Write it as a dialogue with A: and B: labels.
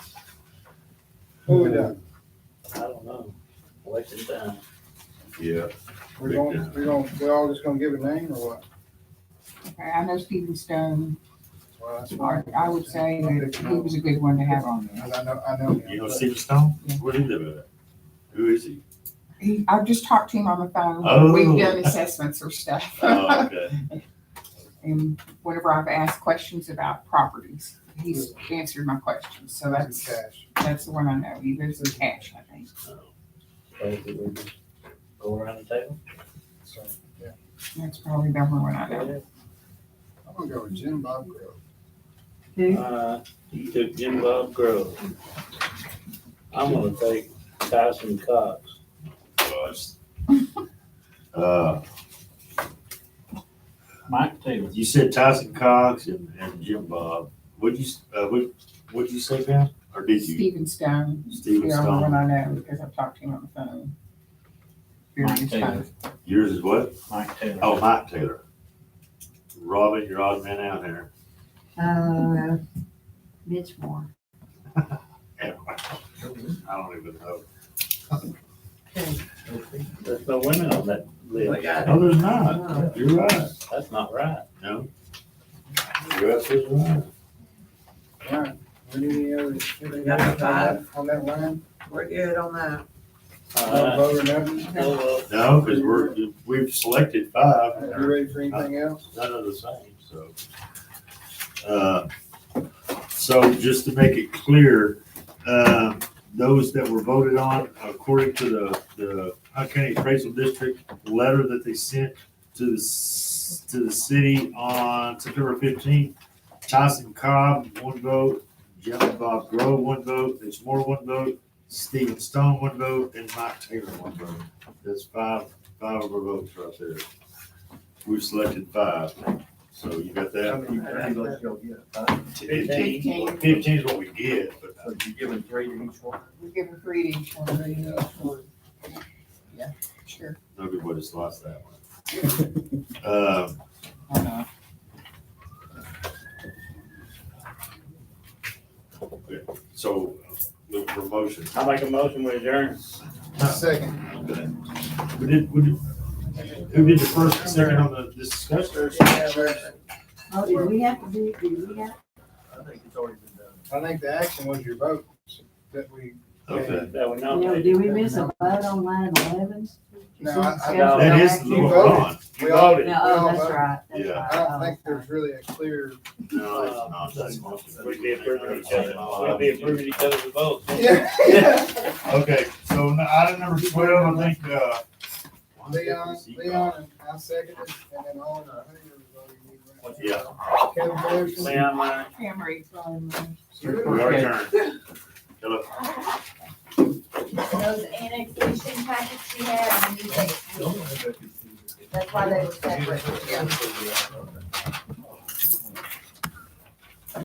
A: What we done?
B: I don't know, wasting time.
C: Yeah,
A: We don't, we don't, we all just gonna give a name or what?
D: Okay, I know Stephen Stone,
A: Well, that's
D: I
A: fine.
D: I would say that he was a good one to have on there.
A: I know, I know.
E: You
A: him.
E: know Stephen Stone?
D: Yeah.
E: Where do you live at? Who is he?
D: He, I've just talked to him on the phone.
E: Oh.
D: We've done assessments or stuff.
E: Oh, okay.
D: And whenever I've asked questions about properties, he's answered my questions. So
A: That's
D: that's,
A: cash.
D: that's the one I know. He lives in cash, I think.
B: Basically, we just Go around the table.
A: So, yeah.
D: That's probably the only one I know.
A: I'm gonna go with Jim Bob Grove.
D: Who?
B: Uh, you took Jim Bob Grove. I'm gonna take Tyson Cox.
E: Gosh. Uh,
F: Mike Taylor.
E: you said Tyson Cox and, and Jim Bob. What'd you, s- uh, what, what'd you say, Pam? Or did you?
D: Stephen Stone, the
E: Steven
D: only one I
E: Stone.
D: know because I've talked to him on the phone. Various
F: Mike Taylor.
D: times.
E: Yours is what?
F: Mike Taylor.
E: Oh, Mike Taylor. Robin, you're odd man out here.
G: Uh, Mitch Moore.
E: I don't even know.
B: There's no women on that list.
E: No, there's not. You're right.
B: That's not right.
E: No. You're absolutely right.
A: Alright, we need any other? anything
H: Number
A: else on that-
H: five.
A: On that line?
H: We're good on that.
A: No
B: Uh,
A: vote or nothing?
B: oh, well,
E: No, because we're, we've selected five. and
A: Are
E: they're-
A: you ready for anything else?
E: none of the same, so. Uh, So just to make it clear, uh, those that were voted on according to the, the Hunt County Appraisal District letter that they sent to the, s- to the city on September fifteenth, Tyson Cobb, one vote, Jim Bob Grove, one vote, Mitch Moore, one vote, Stephen Stone, one vote, and Mike Taylor, one vote. That's five, five of our votes right there. We've selected five, so you got that?
D: Fifteen.
E: Fifteen is what we get, but
F: Uh, So you giving three to each one?
D: We give a three to each one. Yeah, sure.
E: everybody's lost that one. Um,
D: Why not?
E: so, look for motion.
B: I make a motion with adjourn.
A: Second.
E: We did, we did, who did the first and second on the, this discussion?
G: Oh, do we have to do, do we have?
F: uh, I think it's already been done.
A: I think the action was your vote, that we.
E: Okay.
B: That we
G: No,
B: nominate.
G: did we miss a vote on line eleven?
A: No, I- I-
G: No,
E: That is the
A: You
E: one
A: voted.
E: on.
A: We all,
G: No, oh, that's right. that's
E: Yeah.
A: I
G: right.
D: Oh,
A: don't think there's really a clear.
E: No, it's not. That's not.
B: We'd be approving each other, we'd be approving each other's votes.
E: Okay, so n- item number twelve, I think, uh.
A: Leon, Leon, and I seconded, and then all in our hundred voting. we ran.
E: Yeah.
A: Kevin Blairson.
B: Leon, Meyer.
D: Pam Reed.
E: We are adjourned. Hello.
G: Those annexation packets we had, we need to- that's why they were separate.
F: Yeah.